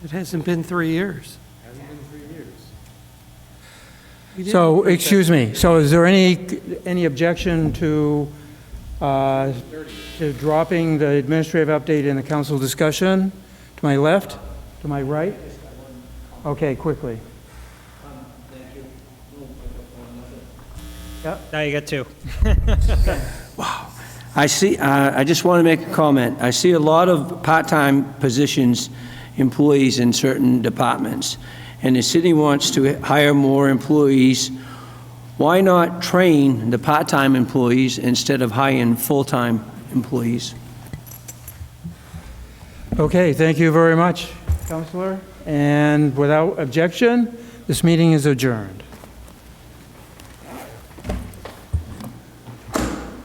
It hasn't been three years. Hasn't been three years. We didn't So, approve that. excuse me, so is there any, any objection to, uh, to dropping the administrative update in the council discussion? To my left? To my right? Okay, quickly. Now you got two. I see, uh, I just want to make a comment. I see a lot of part-time positions, employees in certain departments, and the city wants to hire more employees. Why not train the part-time employees instead of hiring full-time employees? Okay, thank you very much, Counselor. And without objection, this meeting is adjourned.